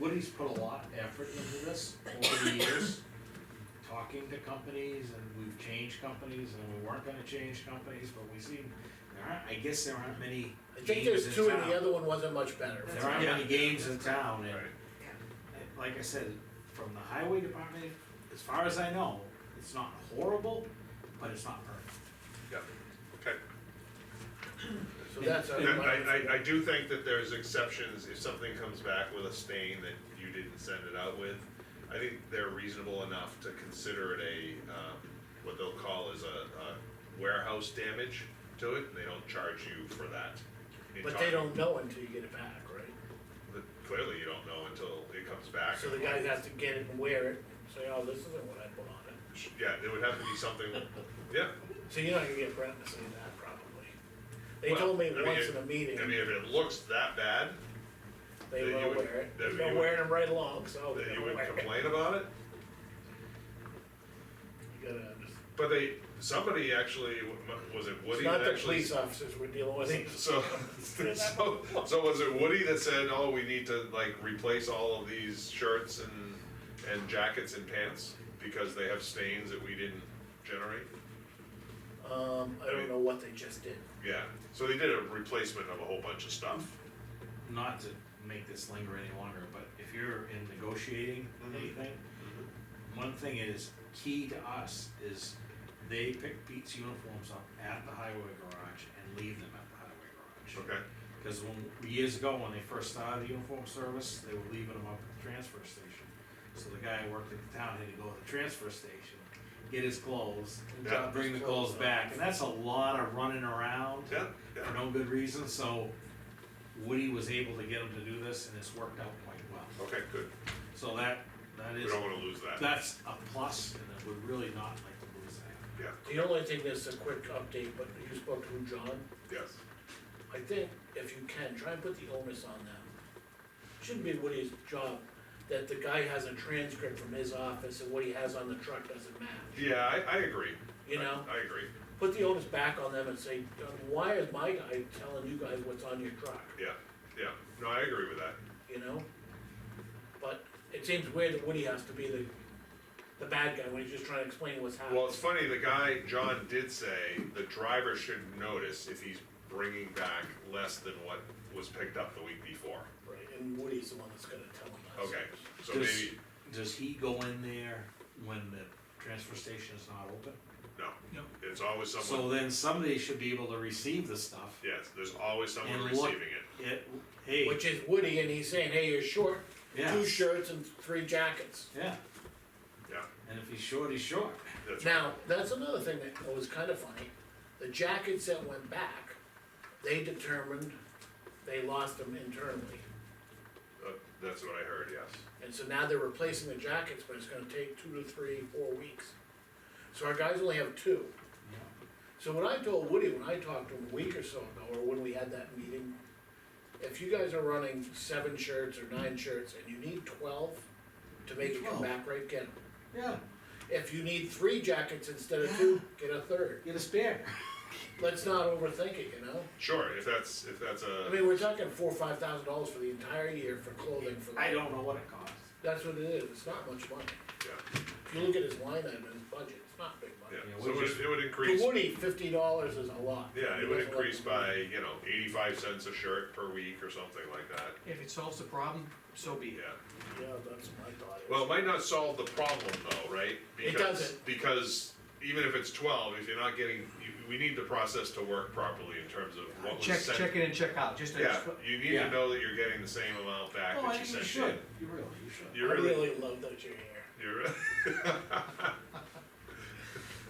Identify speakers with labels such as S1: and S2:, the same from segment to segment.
S1: Woody's put a lot of effort into this over the years, talking to companies, and we've changed companies, and we weren't gonna change companies, but we seem, there aren't, I guess there aren't many
S2: I think
S1: games
S2: there's
S1: in
S2: two and the
S1: town.
S2: other one wasn't much better.
S1: There aren't
S3: Yeah.
S1: many games in town, and,
S3: Right.
S1: and like I said, from the highway department, as far as I know, it's not horrible, but it's not perfect.
S3: Yeah, okay.
S2: So that's. our-
S3: And I, I, I do think that there's exceptions, if something comes back with a stain that you didn't send it out with, I think they're reasonable enough to consider it a, um, what they'll call is a, a warehouse damage to it, and they don't charge you for that. in
S2: But they
S3: time.
S2: don't know until you get it back, right?
S3: But Clearly, you don't know until it comes back.
S2: So the guy has to get it and wear it, say, oh, this isn't what I put on it.
S3: Yeah, there would have to be something, yeah,
S2: So you're not gonna get Brent to say that probably. They
S3: Well,
S2: told me
S3: I mean,
S2: once
S3: it-
S2: in a
S3: I
S2: meeting,
S3: mean, if it looks that bad,
S2: they
S3: then you
S2: will
S3: would-
S2: wear it,
S3: then
S2: they're
S3: you would-
S2: wearing them right along, so
S3: then
S2: they're
S3: you
S2: gonna
S3: would
S2: wear it.
S3: complain about it?
S2: You gotta understand.
S3: But they, somebody actually, was it
S2: It's
S3: Woody
S2: not
S3: that
S2: the
S3: actually?
S2: police officers we're dealing with, it's
S3: So, so, so was it Woody that said, oh, we need to like replace all of these shirts and, and jackets and pants? Because they have stains that we didn't generate?
S2: Um, I don't know what they just did.
S3: Yeah, so they did a replacement of a whole bunch of stuff.
S1: Not to make this linger any longer, but if you're in negotiating
S2: Mm-hmm.
S3: Mhm.
S1: anything, One thing is key to us is they pick Pete's uniforms up at the highway garage and leave them at the highway garage.
S3: Okay,
S1: Because when, years ago, when they first started the uniform service, they were leaving them up at the transfer station. So the guy who worked at the town had to go to the transfer station, get his clothes,
S2: And
S3: Yeah.
S2: drop
S1: bring the
S2: his
S1: clothes
S2: off.
S1: back, and that's a lot of running around
S3: yeah,
S1: for
S3: yeah,
S1: no good reason, so Woody was able to get him to do this, and it's worked out quite well.
S3: okay, good.
S1: So that, that
S3: We
S1: is
S3: don't wanna lose that,
S1: that's a plus, and I would really not like to lose that.
S3: yeah,
S2: The only thing that's a quick update, but you spoke to John,
S3: yes.
S2: I think if you can, try and put the onus on them. Shouldn't be Woody's job, that the guy has a transcript from his office and what he has on the truck doesn't match.
S3: Yeah, I, I agree.
S2: You
S3: I-
S2: know?
S3: I agree,
S2: Put the onus back on them and say, why is my guy telling you guys what's on your truck,
S3: yeah, yeah, no, I agree with that,
S2: you know? But it seems weird that Woody has to be the, the bad guy when he's just trying to explain what's
S3: Well,
S2: happening.
S3: it's funny, the guy, John did say the driver should notice if he's bringing back less than what was picked up the week before.
S2: Right, and Woody's the one that's gonna tell him that.
S3: Okay, so
S1: Does-
S3: maybe,
S1: Does he go in there when the transfer station is not open?
S3: no, it's always someone,
S1: So then somebody should be able to receive the stuff.
S3: yes, there's always someone
S1: And
S3: receiving
S1: look-
S3: it.
S1: It- hey,
S2: Which is Woody, and he's saying, hey, you're short,
S1: yeah,
S2: two shirts and three jackets.
S1: yeah,
S3: Yeah,
S1: and if he's short, he's short.
S3: that's right,
S2: Now, that's another thing that was kind of funny, the jackets that went back, they determined they lost them internally.
S3: Uh, that's what I heard, yes.
S2: And so now they're replacing the jackets, but it's gonna take two to three, four weeks. So our guys only have two. So what I told Woody when I talked to him a week or so ago, or when we had that meeting, if you guys are running seven shirts or nine shirts and you need twelve to make it come
S1: Twelve.
S2: back right, get 'em.
S1: Yeah,
S2: If you need three jackets instead of two, get a third.
S1: get a spare.
S2: Let's not overthink it, you know?
S3: Sure, if that's, if that's
S2: I
S3: a,
S2: mean, we're talking four, or five thousand dollars for the entire year for clothing for
S1: I
S2: that.
S1: don't know what it costs.
S2: That's what it is, it's not much money.
S3: yeah,
S2: If you look at his line item, his budget, it's not big
S3: yeah,
S2: money.
S1: Yeah,
S3: so
S1: we
S3: it would,
S1: just-
S3: it would increase,
S2: For Woody, fifty dollars is a lot.
S3: yeah,
S2: He
S3: it would
S2: doesn't like
S3: increase
S2: the
S3: by,
S2: money.
S3: you know, eighty-five cents a shirt per week or something like that,
S4: If it solves the problem, so be it.
S3: yeah.
S2: Yeah, that's my thought.
S3: Well, it might not solve the problem though, right?
S2: It
S3: Because-
S2: doesn't.
S3: Because even if it's twelve, if you're not getting, you, we need the process to work properly in terms of what was
S4: Check,
S3: sent.
S4: check in and check out, just
S3: Yeah,
S4: to,
S3: you need
S1: Yeah.
S3: to know that you're getting the same amount back
S1: Oh, I
S3: that you
S1: think you
S3: sent in.
S1: should, you really, you should.
S2: I
S3: You're really,
S2: really love that you're here.
S3: you're, really-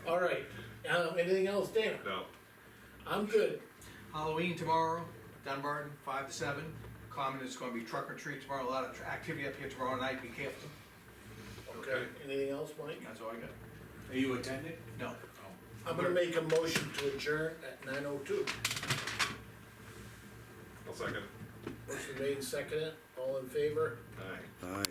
S2: All right, um, anything else, Dana?
S3: no,
S2: I'm good.
S4: Halloween tomorrow, Dunbarton, five to seven. Common is gonna be truck or treat tomorrow, a lot of tr- activity up here tomorrow night, be careful,
S2: Okay, anything else, Mike?
S4: that's all I got.
S1: Are you attending?
S4: No,
S2: I'm gonna make a motion to adjourn at nine oh two.
S3: I'll second.
S2: Motion made and seconded, all in favor?
S3: Aye.
S5: Aye.